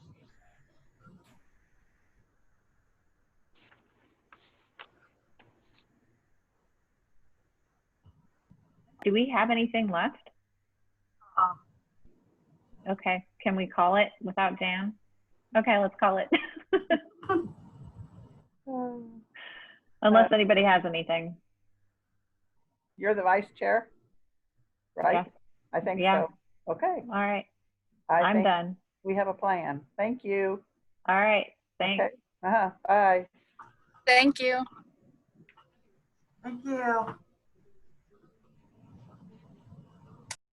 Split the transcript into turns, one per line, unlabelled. Do we have anything left?
Um.
Okay, can we call it without Dan? Okay, let's call it.
Uh,
Unless anybody has anything.
You're the vice chair? Right? I think
Yeah.
so. Okay.
All right,
I
I'm
think
done.
we have a plan. Thank you.
All right, thanks.
Okay. Uh-huh. Bye.
Thank you.
Thank you.